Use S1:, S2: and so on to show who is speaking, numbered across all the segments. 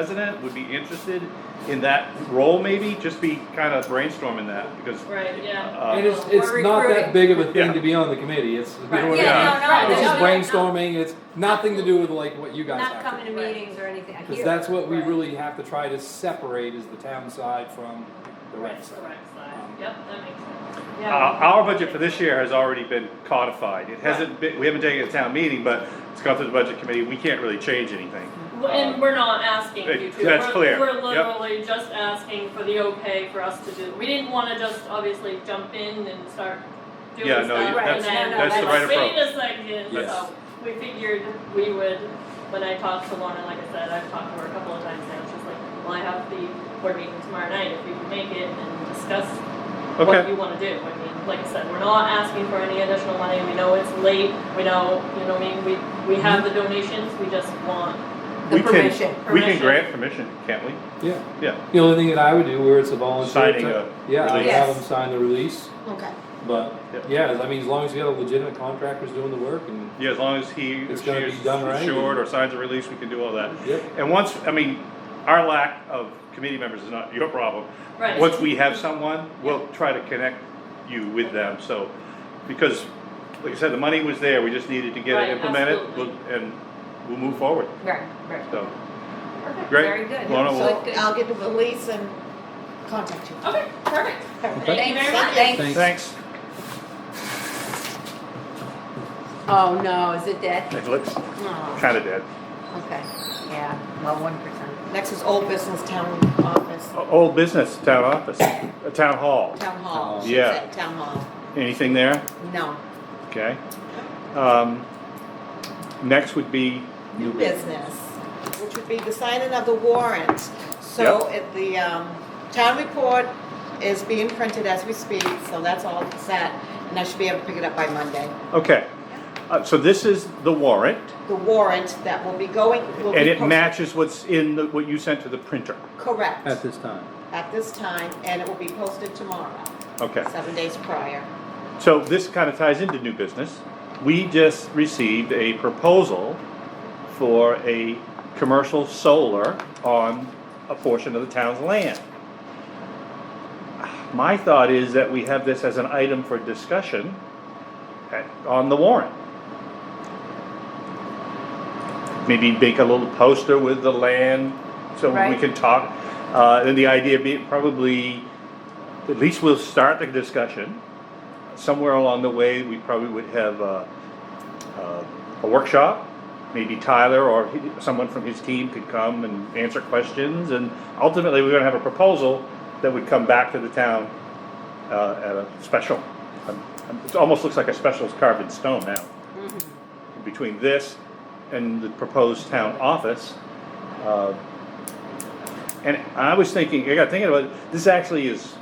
S1: resident would be interested in that role maybe, just be kind of brainstorming that, because.
S2: Right, yeah.
S1: uh,
S3: And it's, it's
S4: We're
S3: not that
S4: recruiting.
S3: big of a thing
S1: Yeah.
S3: to be on the committee, it's, you know
S4: Right.
S3: what I
S1: Yeah,
S3: mean?
S4: Yeah, no, no.
S3: It's
S4: no,
S3: just
S4: no, no.
S3: brainstorming, it's nothing to do with like what you guys
S4: Not
S3: have.
S4: coming to meetings or anything, I
S3: Cause
S4: hear.
S3: that's what we
S2: Right.
S3: really have to try to separate is the town side from the rec
S2: That's the
S3: side.
S2: right side. Yep, that makes sense.
S1: Uh,
S2: Yeah.
S1: our budget for this year has already been codified, it hasn't been, we haven't taken a town meeting, but it's gone through the budget committee, we can't really change anything.
S2: Well, And we're not asking you to.
S1: That's
S2: We're-
S1: clear.
S2: We're
S1: Yep.
S2: literally just asking for the okay for us to do. We didn't wanna just obviously jump in and start doing
S1: Yeah,
S2: stuff
S1: no,
S2: and
S1: you-
S2: then.
S4: that's- no, no,
S2: like,
S4: that's the right
S1: approach.
S2: Wait a second,
S3: Yes.
S2: so we figured we would, when I talked to Lorna, like I said, I've talked to her a couple of times now, she's like, well, I have the board meeting tomorrow night, if you can make it and discuss what
S1: Okay,
S2: you wanna do. I mean, like I said, we're not asking for any additional money, we know it's late, we know, you know, what I mean, we, we have the donations, we just want.
S4: The
S1: we
S4: permission.
S1: can, we can
S2: Permission.
S1: grant permission, can't we?
S3: Yeah,
S1: Yeah,
S3: the only thing that I would do where it's a volunteer.
S1: Signing
S3: type-
S1: a
S3: Yeah, I'd
S1: release.
S3: have them sign the release,
S4: Okay.
S3: but,
S1: Yep.
S3: yeah, I mean, as long as you got a legitimate contractor who's doing the work and,
S1: yeah, as long as he, or
S3: It's
S1: she
S3: gotta be
S1: is
S3: done right.
S1: insured or signs a release, we can do all that.
S3: yep.
S1: And once, I mean, our lack of committee members is not your problem.
S2: Right.
S1: Once we have someone, we'll try to connect you with them, so, because, like I said, the money was there, we just needed to get
S2: Right,
S1: it implemented,
S2: absolutely.
S1: we'll- and we'll move forward,
S4: Right, right.
S1: so.
S4: Perfect.
S1: Great.
S4: Very good.
S1: Lorna
S4: So
S1: will-
S4: it's
S5: So I'll get the release and contact you.
S2: Okay, perfect. Thank you very much.
S4: Thanks.
S3: Thanks.
S1: Thanks.
S4: Oh, no, is it dead?
S1: It looks
S4: Oh,
S1: kinda dead.
S4: okay, yeah, well, one percent.
S5: Next is old business town office,
S1: O- Old business, town office, uh, town hall,
S5: town hall.
S3: Town
S5: she
S1: hall.
S5: said, Town hall,
S1: anything there?
S5: no,
S1: Okay. Um, Next would be,
S5: new business, which would be the signing of the warrant. So if the, um, town report is being printed as we speak, so that's all set, and I should be able to pick it up by Monday.
S1: okay, Uh, so this is the warrant,
S5: The warrant that will be going, will be.
S1: and it
S5: posted-
S1: matches what's in, the- what you sent to the printer,
S5: Correct,
S3: At this time.
S5: at this time, and it will be posted tomorrow,
S1: okay?
S5: seven days prior.
S1: So this kind of ties into new business. We just received a proposal for a commercial solar on a portion of the town's land. My thought is that we have this as an item for discussion at- on the warrant. Maybe make a little poster with the land, so we
S4: Right.
S1: can talk. Uh, and the idea being probably, at least we'll start the discussion somewhere along the way, we probably would have a, a workshop. Maybe Tyler or he- someone from his team could come and answer questions, and ultimately, we're gonna have a proposal that would come back to the town uh, at a special. Um, It almost looks like a special's carved in stone now. Between this and the proposed town office, uh, and I was thinking, I got thinking about, it, this actually is,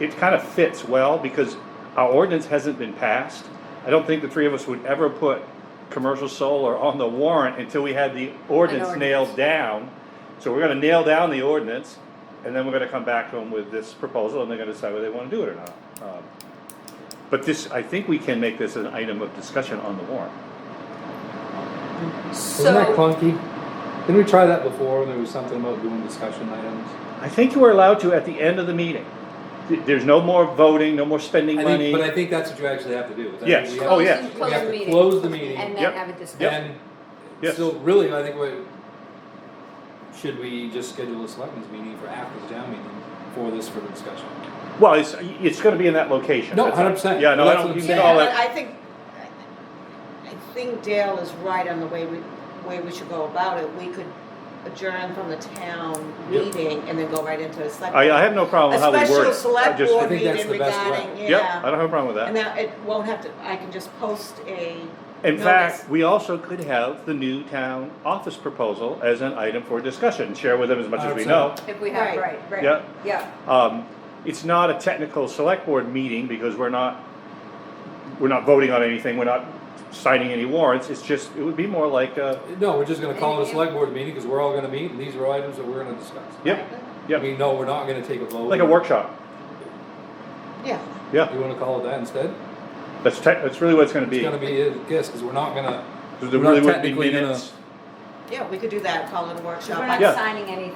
S1: it kind of fits well because our ordinance hasn't been passed. I don't think the three of us would ever put commercial solar on the warrant until we had the ordinance
S4: ordinance.
S1: nailed down. So we're gonna nail down the ordinance and then we're gonna come back to them with this proposal and they're gonna decide whether they wanna do it or not. Um, But this, I think we can make this an item of discussion on the warrant.
S3: Isn't that
S4: So,
S3: clunky? Didn't we try that before, when there was something about doing discussion items?
S1: I think you are allowed to at the end of the meeting. Th- There's no more voting, no more spending
S3: I
S1: money.
S3: think, but I think that's what you actually have to do. is I think
S1: Yes.
S3: we have-
S1: Oh, yeah.
S4: close,
S3: We have
S4: close
S3: to
S4: the meeting.
S3: close the meeting.
S4: And
S1: Yep.
S4: then have a discussion.
S3: And
S1: Yes.
S3: so really, I think what, should we just schedule a selectmen's meeting for after the town meeting for this for discussion?
S1: Well, it's, it's gonna be in that location.
S3: No,
S1: That's all.
S3: 100%.
S1: Yeah, no, I
S3: That's what
S1: don't,
S3: I'm
S1: you can
S3: saying.
S1: call
S5: Yeah, but
S1: it,
S5: I think, I think Dale is right on the way we, way we should go about it. We could adjourn from the town
S3: Yep.
S5: meeting and then go right into a select.
S1: I, I have no problem with how we word it.
S5: A special
S1: I
S5: select
S1: just-
S3: I
S5: board
S3: think that's
S5: meeting
S3: the best way.
S5: regarding,
S1: Yep, I
S5: yeah.
S1: don't have a problem with
S5: And
S1: that.
S5: now it won't have to, I can just post a,
S1: In fact,
S5: no, that's-
S1: we also could have the new town office proposal as an item for discussion, share with them as much as we know.
S3: 100%.
S4: If we have,
S5: Right.
S4: right, right.
S1: Yeah.
S4: Yeah,
S1: Um, it's not a technical select board meeting because we're not, we're not voting on anything, we're not signing any warrants, it's just, it would be more like a,
S3: No, we're just gonna call it
S4: And-
S3: a select board meeting, cause we're all gonna meet, and these are items that we're gonna discuss.
S1: yep,
S3: I
S1: yep,
S3: mean, no, we're not gonna take a vote.
S1: like a workshop,
S5: yeah,
S1: yeah.
S3: You wanna call it that instead?
S1: That's tech, that's really what it's gonna
S3: It's
S1: be.
S3: gonna be, yes, cause we're not gonna,
S1: There
S3: we're
S1: really
S3: not
S1: wouldn't be
S3: technically gonna-
S1: minutes.
S6: Yeah, we could do that, call it a workshop.
S4: We're
S6: I-
S4: not
S5: Yeah.
S4: signing anything